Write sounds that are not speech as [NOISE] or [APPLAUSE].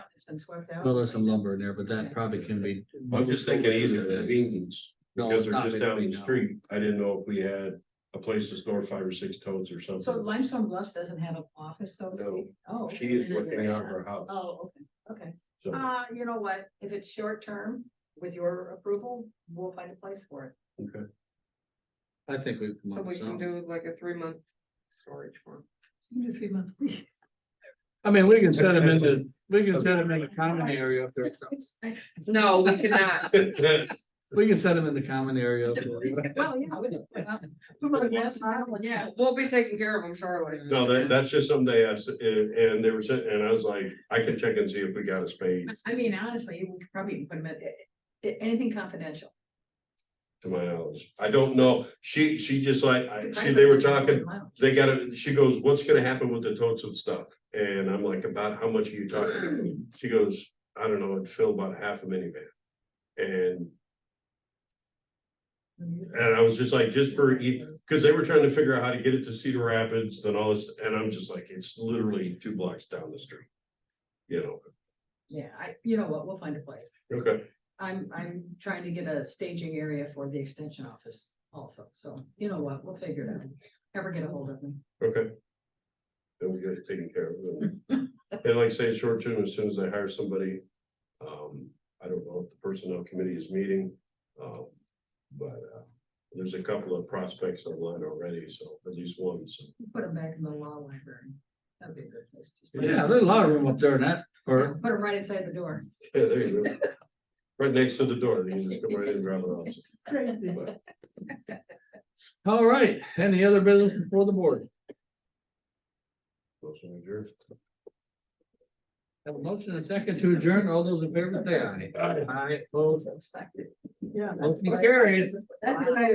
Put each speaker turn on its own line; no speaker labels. it's been swept out.
Well, there's some lumber in there, but that probably can be.
I'm just thinking easier than beans,
No,
because
it's
they're
not
just
made of
down the
beans, no.
street. I didn't know if we had a place to store five or six totes or
So
something.
Limestone Bluffs doesn't have an office, so. to
No.
speak? Oh.
She is
okay.
working out her house.
Oh, okay, okay.
So,
Uh, you know what? If it's short term, with your approval, we'll find a place for it.
okay.
I think we. come
So
up
we
with
can
something.
do like a three month storage form.
Do three months. [LAUGHS]
I mean, we can set them in the, we can set them in the common area up there. or something.
No, we
[LAUGHS]
cannot.
We can set them in the common area. up there.
Well, yeah. I would- well, that's not one,
Yeah,
Yeah.
we'll be taking care of them shortly.
No, that, that's just something they asked, and, and they were sitting, and I was like, I can check and see if we got a spade,
I mean, honestly, we could probably even put them at, a- anything confidential.
to my knowledge. I don't know. She, she just like, I, she, they were talking, they gotta, she goes, what's gonna happen with the totes and stuff? And I'm like, about how much are you talking? She goes, I don't know, it'd fill about half a minivan. And, and I was just like, just for, e- cause they were trying to figure out how to get it to Cedar Rapids and all this, and I'm just like, it's literally two blocks down the street. You know,
Yeah, I, you know what, we'll find a place.
okay,
I'm, I'm trying to get a staging area for the extension office also, so you know what, we'll figure it out. Ever get a hold of me.
okay. Then we got it taken care of. And like I say, short term, as soon as I hire somebody, um, I don't know if the personnel committee is meeting, um, but, uh, there's a couple of prospects online already, so at least one, so. [LAUGHS]
Put them back in the law library. That'd be a good place. to put 'em.
Yeah, there's a lot of room up there in that, or,
Put them right inside the door. [LAUGHS]
Yeah, there you go. Right next to the door, you can just come right in and grab it off. But
all right, any other business before the board?
motion adjourned.
Have a motion and a second to adjourn, all those in favor say aye. Aye. opposed,
Yeah.
motion carried.
That's what I-